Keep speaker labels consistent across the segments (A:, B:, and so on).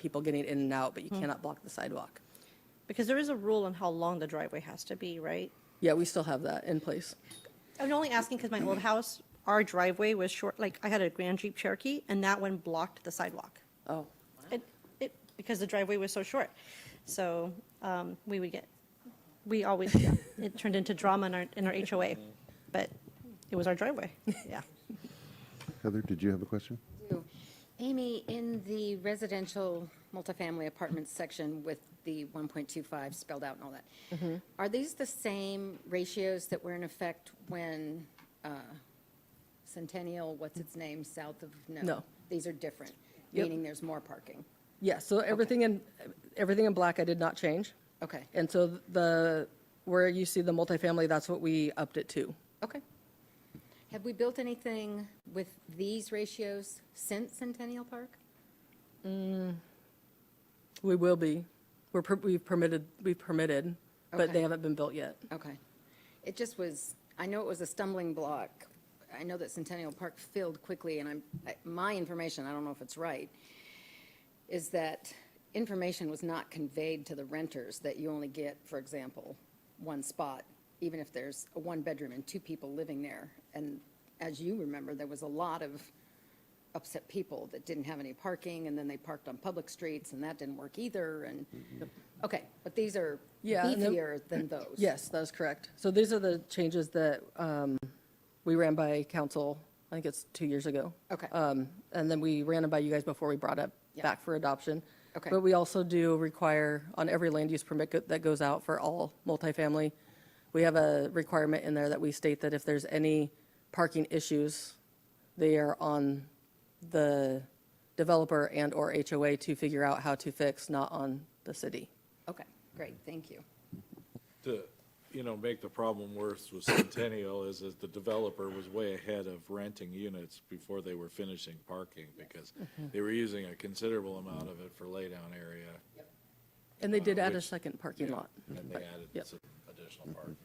A: people getting in and out, but
B: Hmm.
A: you cannot block the sidewalk.
C: Because there is a rule on how long the driveway has to be, right?
A: Yeah, we still have that in place.
C: I'm only asking because my old
A: Mm-hmm.
C: house, our driveway was short, like, I had a Grand Jeep Cherokee, and that one blocked the sidewalk.
A: Oh,
C: It, it, because the driveway was so short. So, um, we would get, we always, yeah, it turned into drama in our, in our HOA, but it was our driveway, yeah.
D: Heather, did you have a question?
B: you. Amy, in the residential multifamily apartments section with the 1.25 spelled out and all
A: Mm-hmm.
B: that, are these the same ratios that were in effect when uh, Centennial, what's its name, south of, no?
A: No.
B: These are different,
A: Yep.
B: meaning there's more parking.
A: yeah, so everything in, everything in black I did not change.
B: Okay,
A: And so the, where you see the multifamily, that's what we upped it to.
B: okay. Have we built anything with these ratios since Centennial Park?
A: We will be, we're, per- we've permitted, we've permitted, but they
B: Okay.
A: haven't been built yet.
B: Okay. It just was, I know it was a stumbling block. I know that Centennial Park filled quickly, and I'm, I- my information, I don't know if it's right, is that information was not conveyed to the renters that you only get, for example, one spot, even if there's a one-bedroom and two people living there. And as you remember, there was a lot of upset people that didn't have any parking, and then they parked on public streets, and that didn't work either, and, okay, but these are
A: Yeah, and then-
B: beefier than those.
A: Yes, that is correct. So these are the changes that um, we ran by council, I think it's two years ago.
B: Okay.
A: Um, And then we ran them by you guys before we brought it
B: Yeah.
A: back for adoption.
B: Okay.
A: But we also do require, on every land use permit go- that goes out for all multifamily, we have a requirement in there that we state that if there's any parking issues, they are on the developer and/or HOA to figure out how to fix, not on the city.
B: Okay, great, thank you.
E: to, you know, make the problem worse with Centennial is that the developer was way ahead of renting units before they were finishing parking because
F: Mm-hmm.
E: they were using a considerable amount of it for laydown area.
A: And they did add a
E: Which-
A: second parking
E: Yeah, Mm-hmm.
A: lot.
E: And they added
A: Yep.
E: some additional parking.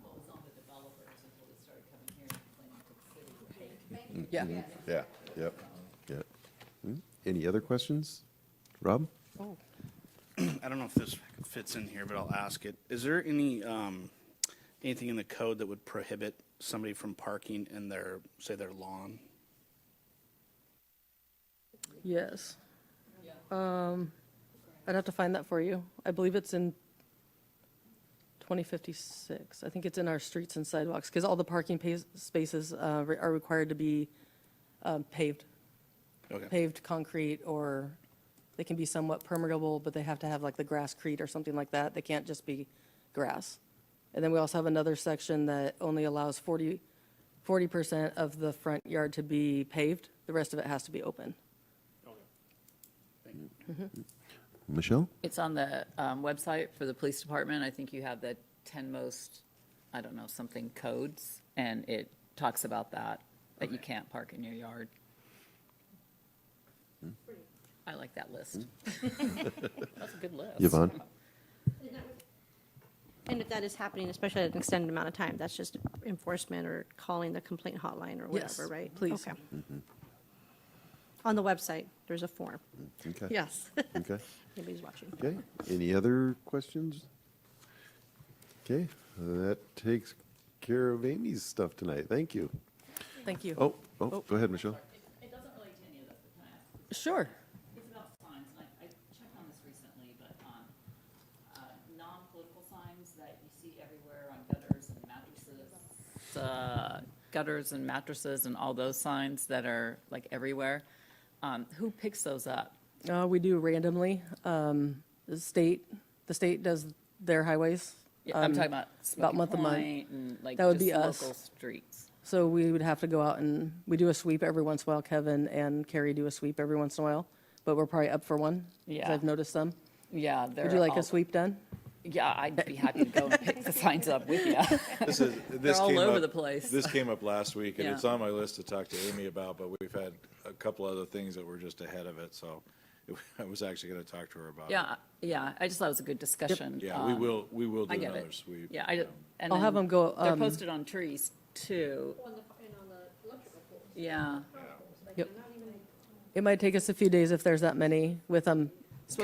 F: what was on the developers until it started coming here and complaining to the city.
A: Yeah.
E: Mm-hmm.
D: Yeah, yep. Yeah. Any other questions? Rob?
G: I don't know if this fits in here, but I'll ask it. Is there any, um, anything in the code that would prohibit somebody from parking in their, say, their lawn?
A: Yes. Um, I'd have to find that for you. I believe it's in 2056. I think it's in our streets and sidewalks, because all the parking pa- spaces uh, re- are required to be um, paved,
G: Okay.
A: paved concrete, or they can be somewhat permeable, but they have to have like the grasscrete or something like that. They can't just be grass. And then we also have another section that only allows 40, 40% of the front yard to be paved. The rest of it has to be open.
D: Michelle?
F: It's on the um, website for the police department. I think you have the 10 most, I don't know, something codes, and it talks about that, that you can't park in your yard. I like that list. That's a good list.
D: Yvonne?
C: And if that is happening, especially at an extended amount of time, that's just enforcement or calling the complaint hotline or
A: Yes,
C: whatever, right?
A: please.
C: Okay. On the website, there's a form.
D: Okay.
C: Yes,
D: Okay.
C: nobody's watching.
D: Okay. Any other questions? Okay, that takes care of Amy's stuff tonight. Thank you.
A: Thank you.
D: Oh, oh, go ahead, Michelle.
F: It doesn't relate to any of this, but can I ask?
A: Sure.
F: It's about signs, and I, I checked on this recently, but, um, uh, non-political signs that you see everywhere on gutters and mattresses. Uh, gutters and mattresses and all those signs that are like everywhere, um, who picks those up?
A: Uh, we do randomly. Um, the state, the state does their highways.
F: Yeah, I'm
A: Um,
F: talking about Smoky
A: month to month.
F: Point and like
A: That would be
F: just local
A: us.
F: streets.
A: So we would have to go out and, we do a sweep every once in a while. Kevin and Carrie do a sweep every once in a while, but we're probably up for one. 'cause
F: Yeah.
A: I've noticed them.
F: Yeah, they're.
A: Would you like
F: all-
A: a sweep done?
F: Yeah, I'd be happy to go and pick the signs up with you.
E: This is, this
F: all
E: came
F: over
E: up-
F: the place.
E: This came up last week, and
F: Yeah.
E: it's on my list to talk to Amy about, but we've had a couple other things that were just ahead of it, so it- I was actually gonna talk to her about it.
F: Yeah, yeah, I just thought it was a good discussion.
E: Yeah, we
F: um,
E: will, we will do
F: I get
E: another
F: it.
E: sweep.
F: Yeah, I, and
A: I'll have
F: then
A: them go,
F: They're
A: um,
F: posted on trees too. Yeah,
A: It might take us a few days if there's that many with um, them